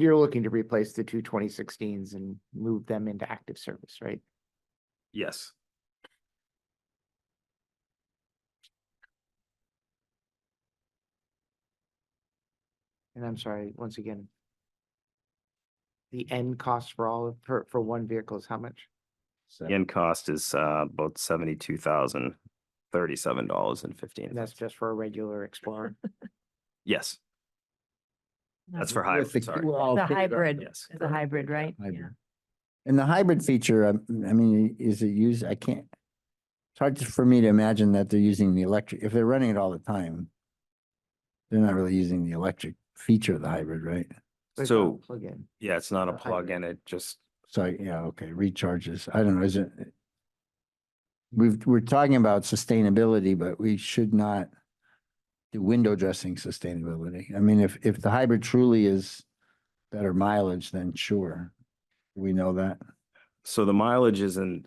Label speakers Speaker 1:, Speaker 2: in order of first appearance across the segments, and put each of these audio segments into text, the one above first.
Speaker 1: You're looking to replace the two 2016s and move them into active service, right?
Speaker 2: Yes.
Speaker 1: And I'm sorry, once again. The end cost for all, for, for one vehicle is how much?
Speaker 2: The end cost is uh about seventy-two thousand thirty-seven dollars and fifteen.
Speaker 1: And that's just for a regular Explorer.
Speaker 2: Yes, that's for
Speaker 3: With
Speaker 2: hybrid, sorry.
Speaker 3: The
Speaker 4: The hybrid,
Speaker 2: Yes.
Speaker 4: it's a hybrid, right?
Speaker 3: Hybrid.
Speaker 4: Yeah.
Speaker 3: And the hybrid feature, um, I mean, is it used, I can't, it's hard to- for me to imagine that they're using the electric, if they're running it all the time, they're not really using the electric feature of the hybrid, right?
Speaker 1: But it's not
Speaker 2: So,
Speaker 1: Plug-in.
Speaker 2: yeah, it's not a
Speaker 1: a hybrid.
Speaker 2: plug-in, it just,
Speaker 3: So, yeah, okay, recharges. I don't know, is it? We've, we're talking about sustainability, but we should not do window dressing sustainability. I mean, if, if the hybrid truly is better mileage, then sure. We know that.
Speaker 2: so the mileage isn't,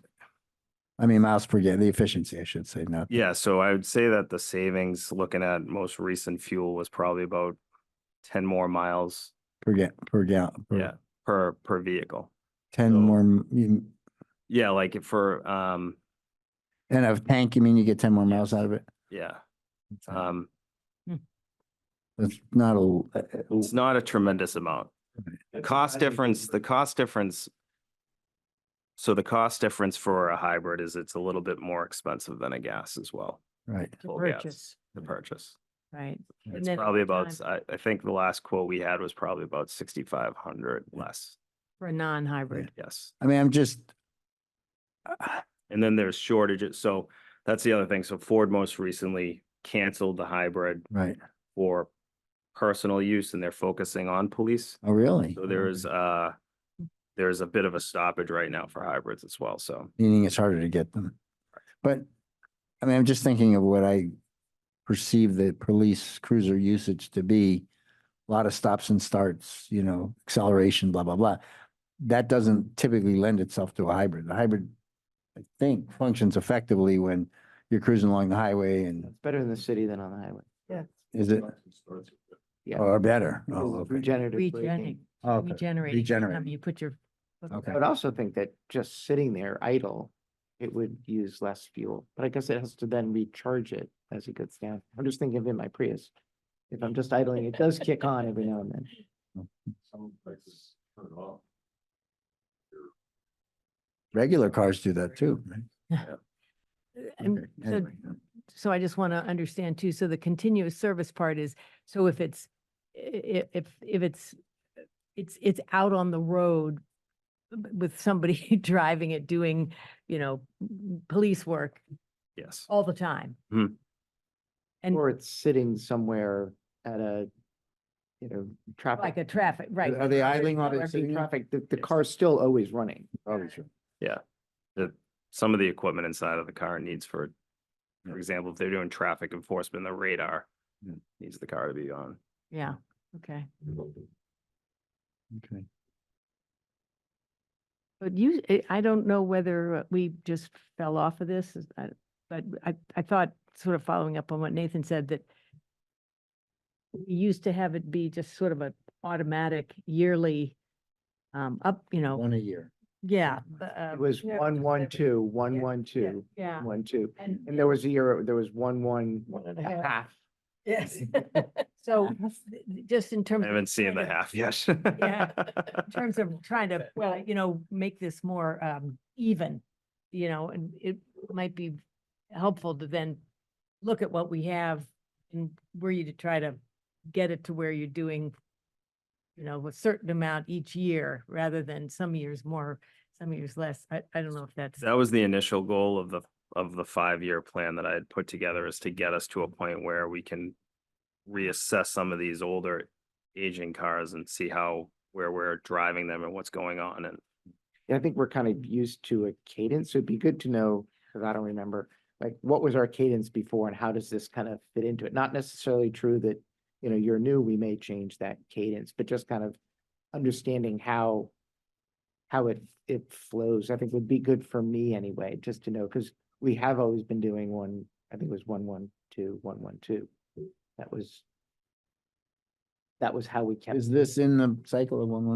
Speaker 3: I mean, miles per gallon, the efficiency, I should say, not.
Speaker 2: yeah, so I would say that the savings, looking at most recent fuel was probably about ten more miles
Speaker 3: Per ga, per gallon,
Speaker 1: Hmm.
Speaker 2: Yeah. per
Speaker 3: per
Speaker 2: per vehicle.
Speaker 3: ten
Speaker 2: So-
Speaker 3: more, m- you-
Speaker 2: Yeah, like if for um,
Speaker 3: and of tank, you mean you get ten more miles out of it?
Speaker 2: yeah,
Speaker 1: Hmm.
Speaker 2: um,
Speaker 3: That's not a, l- uh, uh,
Speaker 2: it's not a tremendous amount. The cost difference, the cost difference. So the cost difference for a hybrid is it's a little bit more expensive than a gas as well,
Speaker 3: right,
Speaker 4: To
Speaker 2: Well, yeah, it's-
Speaker 4: purchase,
Speaker 2: the purchase.
Speaker 4: right? And
Speaker 2: It's
Speaker 4: then
Speaker 2: probably
Speaker 4: over
Speaker 2: about,
Speaker 4: time,
Speaker 2: s- I I think the last quote we had was probably about sixty-five hundred less,
Speaker 4: For a non-hybrid.
Speaker 2: yes.
Speaker 3: I mean, I'm just.
Speaker 2: And then there's shortages, so that's the other thing. So Ford most recently canceled the hybrid
Speaker 3: Right,
Speaker 2: for personal use and they're focusing on police.
Speaker 3: oh, really?
Speaker 2: So there is, uh, there's a bit of a stoppage right now for hybrids as well, so.
Speaker 3: meaning it's harder to get them. But, I mean, I'm just thinking of what I perceive the police cruiser usage to be. A Lot of stops and starts, you know, acceleration, blah, blah, blah. That doesn't typically lend itself to a hybrid. The hybrid, I think, functions effectively when you're cruising along the highway and
Speaker 1: It's better in the city than on the highway.
Speaker 3: is it,
Speaker 1: Yeah.
Speaker 3: or better?
Speaker 1: because
Speaker 3: Oh,
Speaker 1: of
Speaker 3: okay.
Speaker 1: Regenerative
Speaker 4: Regenerating,
Speaker 1: braking.
Speaker 3: Okay.
Speaker 4: regenerating. each time
Speaker 3: regenerating.
Speaker 4: You put your. foot
Speaker 3: Okay.
Speaker 1: I
Speaker 4: down.
Speaker 1: would also think that just sitting there idle, it would use less fuel, but I guess it has to then recharge it as it goes down. I'm just thinking of in my Prius. If I'm just idling, it does kick on every now and then.
Speaker 3: Regular cars do that too, right?
Speaker 4: And
Speaker 3: Okay,
Speaker 4: so,
Speaker 3: anyway.
Speaker 4: so I just want to understand too, so the continuous service part is, so if it's, i- i- if, if it's, it's, it's out on the road b- with somebody driving it, doing, you know, m- police work
Speaker 2: Yes,
Speaker 4: all the time.
Speaker 2: Mhm.
Speaker 4: And
Speaker 1: Or it's sitting somewhere at a, you know,
Speaker 4: like
Speaker 1: traffic.
Speaker 4: a traffic, right.
Speaker 3: Are they idling while they're
Speaker 1: traffic-
Speaker 3: sitting there?
Speaker 1: Traffic, the, the
Speaker 2: Yes.
Speaker 1: car's still always running.
Speaker 3: Obviously.
Speaker 2: some of the equipment inside of the car needs for,
Speaker 3: Yeah.
Speaker 2: for example, if they're doing traffic enforcement, the radar
Speaker 3: Yeah.
Speaker 2: needs the car to be on.
Speaker 4: Yeah, okay.
Speaker 3: Okay.
Speaker 4: But you, eh, I- I don't know whether uh, we just fell off of this, is- I- but I, I thought, sort of following up on what Nathan said, that we used to have it be just sort of an automatic yearly um, up, you know,
Speaker 3: One a year.
Speaker 4: yeah. but, um,
Speaker 1: It was
Speaker 4: yeah,
Speaker 1: one, one,
Speaker 4: every-
Speaker 1: two, one,
Speaker 4: Yeah,
Speaker 1: one,
Speaker 4: yeah,
Speaker 1: two,
Speaker 4: Yeah.
Speaker 1: one, two.
Speaker 4: And
Speaker 1: And there was a year, there was one, one,
Speaker 4: one and a half,
Speaker 1: half.
Speaker 4: yes. So just in terms.
Speaker 2: I
Speaker 4: of
Speaker 2: haven't seen the
Speaker 4: trying to-
Speaker 2: half yet.
Speaker 4: Yeah. in terms of trying to, well, you know, make this more um even, you know, and it might be helpful to then look at what we have and were you to try to get it to where you're doing, you know, a certain amount each year rather than some years more, some years less. I, I don't know if that's,
Speaker 2: That was the initial goal of the, of the five-year plan that I had put together is to get us to a point where we can reassess some of these older aging cars and see how, where we're driving them and what's going on and
Speaker 1: I think we're kind of used to a cadence. so It'd be good to know, because I don't remember, like, what was our cadence before and how does this kind of fit into it? Not necessarily true that, you know, you're new, we may change that cadence, but just kind of understanding how how it it flows, I think would be good for me anyway, just to know, because we have always been doing one, I think it was one, one, two, one, one, two. That was that was how we kept.
Speaker 3: Is this in the cycle of one